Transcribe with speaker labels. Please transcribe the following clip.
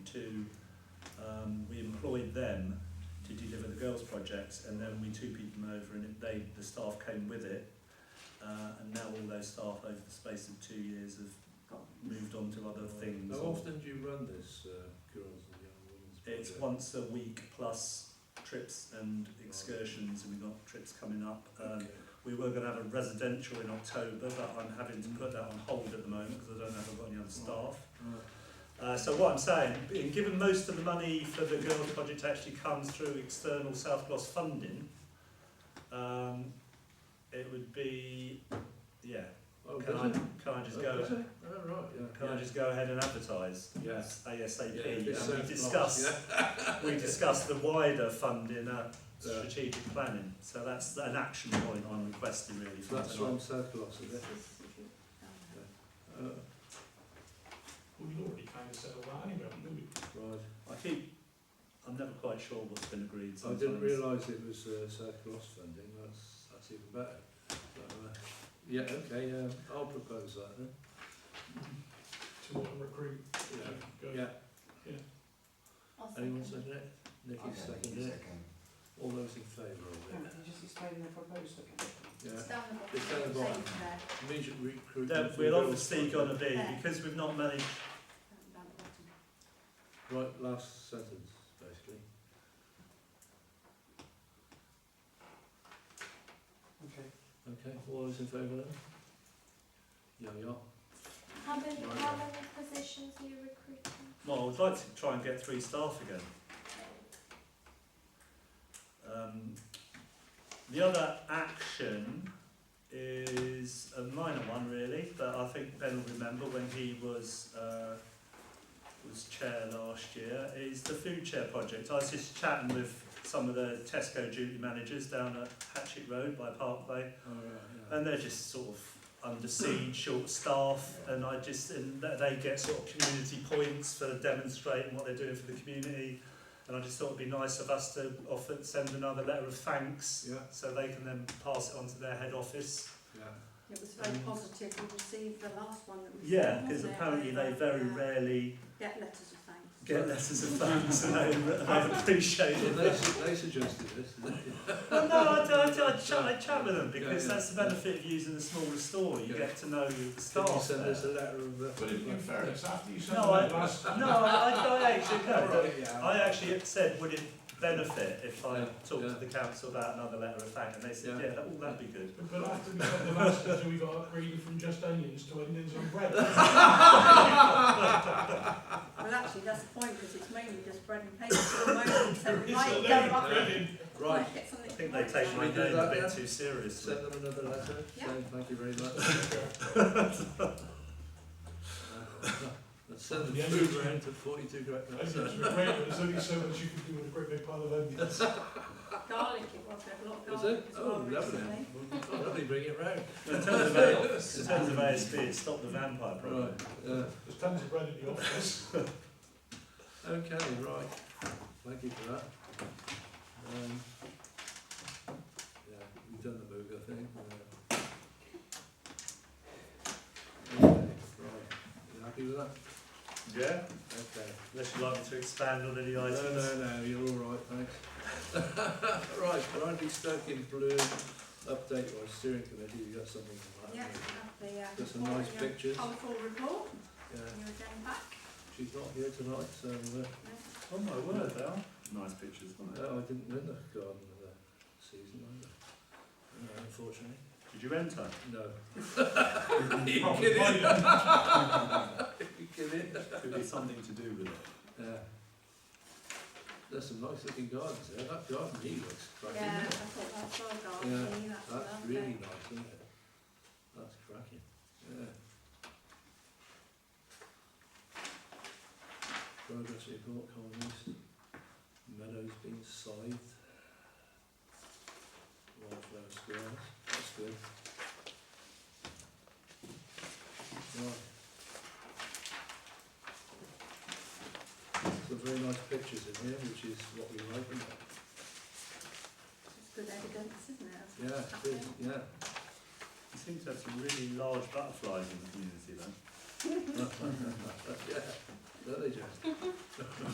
Speaker 1: two, um, we employed them to deliver the girls' projects, and then we two-peated them over, and they, the staff came with it. Uh, and now all those staff, over the space of two years, have moved on to other things.
Speaker 2: How often do you run this uh, girls and young women's
Speaker 1: It's
Speaker 2: project?
Speaker 1: once a week plus trips and excursions, and we've got trips coming up. Um, we
Speaker 2: Okay.
Speaker 1: were going to have a residential in October, but I'm having to put that on hold at the moment because I don't know if I've got any other staff. Uh, so what I'm saying, being given most of the money for the girls project actually comes through external South Gloss funding, um, it would be, yeah.
Speaker 2: Oh,
Speaker 1: Can I,
Speaker 2: does it?
Speaker 1: can I just
Speaker 2: Oh,
Speaker 1: go?
Speaker 2: does it? Oh, right, yeah.
Speaker 1: Can I just go ahead and advertise?
Speaker 2: Yeah.
Speaker 1: ASAP.
Speaker 2: Yeah, a bit
Speaker 1: and we
Speaker 2: surplus,
Speaker 1: discuss,
Speaker 2: yeah.
Speaker 1: we discuss the wider funding at
Speaker 2: Yeah.
Speaker 1: strategic planning. So that's an action point I'm requesting really from
Speaker 2: That's
Speaker 1: tonight.
Speaker 2: from surplus, is it? Uh,
Speaker 3: Well, we'd already kind of settled that anyway, haven't we?
Speaker 2: right.
Speaker 1: I keep, I'm never quite sure what's been agreed
Speaker 2: I
Speaker 1: sometimes.
Speaker 2: didn't realise it was uh, surplus funding. That's that's even better. But, uh, yeah. Okay. Yeah. I'll propose that then.
Speaker 3: To want to recruit.
Speaker 2: Yeah.
Speaker 3: Go.
Speaker 2: Yeah.
Speaker 4: I'll second.
Speaker 2: Anyone second it? Nicky seconded it. All those in favour of it.
Speaker 5: just explain the proposal again?
Speaker 2: Yeah.
Speaker 4: It's down the
Speaker 2: It's down the
Speaker 4: bottom.
Speaker 2: bottom.
Speaker 4: Same there.
Speaker 2: Immediate recruitment.
Speaker 1: Then
Speaker 2: for the
Speaker 1: we'll
Speaker 2: girls'
Speaker 1: obviously
Speaker 2: project.
Speaker 1: gonna be, because we've not managed,
Speaker 4: Down the bottom.
Speaker 2: Right, last sentence, basically.
Speaker 5: Okay.
Speaker 2: Okay, all those in favour then? Yeah, we are.
Speaker 6: How many,
Speaker 2: Right.
Speaker 6: how many positions are you recruiting?
Speaker 1: well, I'd like to try and get three staff again. Um, the other action is a minor one really, but I think Ben will remember when he was uh, was chair last year, is the food chair project. I was just chatting with some of the Tesco duty managers down at Hatchet Road by Parkway,
Speaker 2: All right,
Speaker 1: and they're just sort of under siege, short staff, and I just and th- they get sort of community points for demonstrating what they're doing for the community, and I just thought it'd be nice of us to offer send another letter of thanks,
Speaker 2: yeah.
Speaker 1: so they can then pass it on to their head office.
Speaker 2: Yeah,
Speaker 5: It was very positive, we received the last one that we.
Speaker 1: Yeah,
Speaker 5: sent,
Speaker 1: because
Speaker 5: wasn't it?
Speaker 1: apparently they very
Speaker 5: uh,
Speaker 1: rarely
Speaker 5: Get letters of thanks.
Speaker 1: get letters of thanks, and they, they appreciate
Speaker 2: yeah.
Speaker 1: it.
Speaker 2: They, su- they suggested this. didn't they?
Speaker 1: Well, no, I, I, I, chat, I chat with them because
Speaker 2: Yeah, yeah.
Speaker 1: that's the benefit of using the smaller store. You
Speaker 2: Yeah.
Speaker 1: get to know the
Speaker 2: Can you
Speaker 1: staff.
Speaker 2: send
Speaker 1: there.
Speaker 2: us a letter of... uh,
Speaker 3: But in, in fairness, after you said
Speaker 1: No, I-
Speaker 3: that last,
Speaker 1: No, I, I, I actually
Speaker 2: All
Speaker 1: no, no,
Speaker 2: right, yeah.
Speaker 1: I actually said, would it benefit if I
Speaker 2: Yeah,
Speaker 1: talked
Speaker 2: yeah.
Speaker 1: to the council about another letter of thanks? And they said,
Speaker 2: Yeah.
Speaker 1: yeah, that, all that'd be good.
Speaker 3: but after we said the last, so we got upgraded from just onions to onions on bread.
Speaker 5: Well, actually, that's the point, because it's mainly just bread and cake at the moment, so we
Speaker 3: It's
Speaker 5: might
Speaker 3: a
Speaker 5: go
Speaker 3: load
Speaker 5: up.
Speaker 3: of bread in.
Speaker 2: Right,
Speaker 5: might get something
Speaker 1: I think they
Speaker 5: to
Speaker 1: take
Speaker 5: write
Speaker 1: my
Speaker 2: Should we do
Speaker 1: name a
Speaker 2: that
Speaker 1: bit
Speaker 2: then?
Speaker 1: too seriously.
Speaker 2: send them another letter,
Speaker 5: Yeah.
Speaker 2: saying thank you very much. Uh, Let's send the
Speaker 3: Yeah.
Speaker 2: food round to 42 Great
Speaker 3: I think
Speaker 2: Minds.
Speaker 3: it's great, but there's only so much you can do with a great big pile of onions.
Speaker 5: down. Garlic, it was, there
Speaker 2: Is
Speaker 5: was a lot of garlic
Speaker 2: it?
Speaker 5: as well
Speaker 2: Oh, lovely.
Speaker 5: recently.
Speaker 2: Well, Lovely, bring it round.
Speaker 1: In terms of, A- in terms of ASB, it's stop the vampire problem.
Speaker 2: Right, uh, yeah.
Speaker 3: There's tons of bread in the office.
Speaker 2: Okay, right. Thank you for that. Um, yeah, we've done the move, I think. Uh, okay, right. You happy with that?
Speaker 1: Yeah?
Speaker 2: Okay.
Speaker 1: Unless you'd like me to expand on any items.
Speaker 2: No, no, no, you're all right, thanks. right, Brandy Stoke in Bloom, update on steering committee, you got something on that?
Speaker 5: Yeah,
Speaker 2: haven't
Speaker 5: we have the, uh,
Speaker 2: Got some nice
Speaker 5: report,
Speaker 2: pictures.
Speaker 5: uh, colourful report,
Speaker 2: you? Yeah,
Speaker 5: you're again back.
Speaker 2: she's not here tonight, so, uh,
Speaker 5: no?
Speaker 1: Oh my word, they are. Nice pictures, aren't they?
Speaker 2: no, uh, I didn't win the garden of the season either. No, unfortunately.
Speaker 1: Did you enter?
Speaker 2: No.
Speaker 3: Probably wider.
Speaker 1: Could be something to do with it.
Speaker 2: Yeah. There's some nice looking gardens there. That garden he looks cracking.
Speaker 5: Yeah,
Speaker 2: isn't
Speaker 5: I
Speaker 2: it?
Speaker 5: thought that's well
Speaker 2: Yeah,
Speaker 5: garlicky, that's
Speaker 2: That's
Speaker 5: lovely.
Speaker 2: really nice, isn't it? That's cracking. Yeah. Progress report, colonies. Meadows being scythed. Wildflower squares. That's good. Right. Some very nice pictures in here, which is what we like, isn't it?
Speaker 5: It's good evidence, isn't it? of
Speaker 2: Yeah,
Speaker 5: what's
Speaker 2: good,
Speaker 5: happening?
Speaker 2: yeah.
Speaker 1: You seem to have some really large butterflies in the community, though.
Speaker 2: Yeah, don't they, Jack?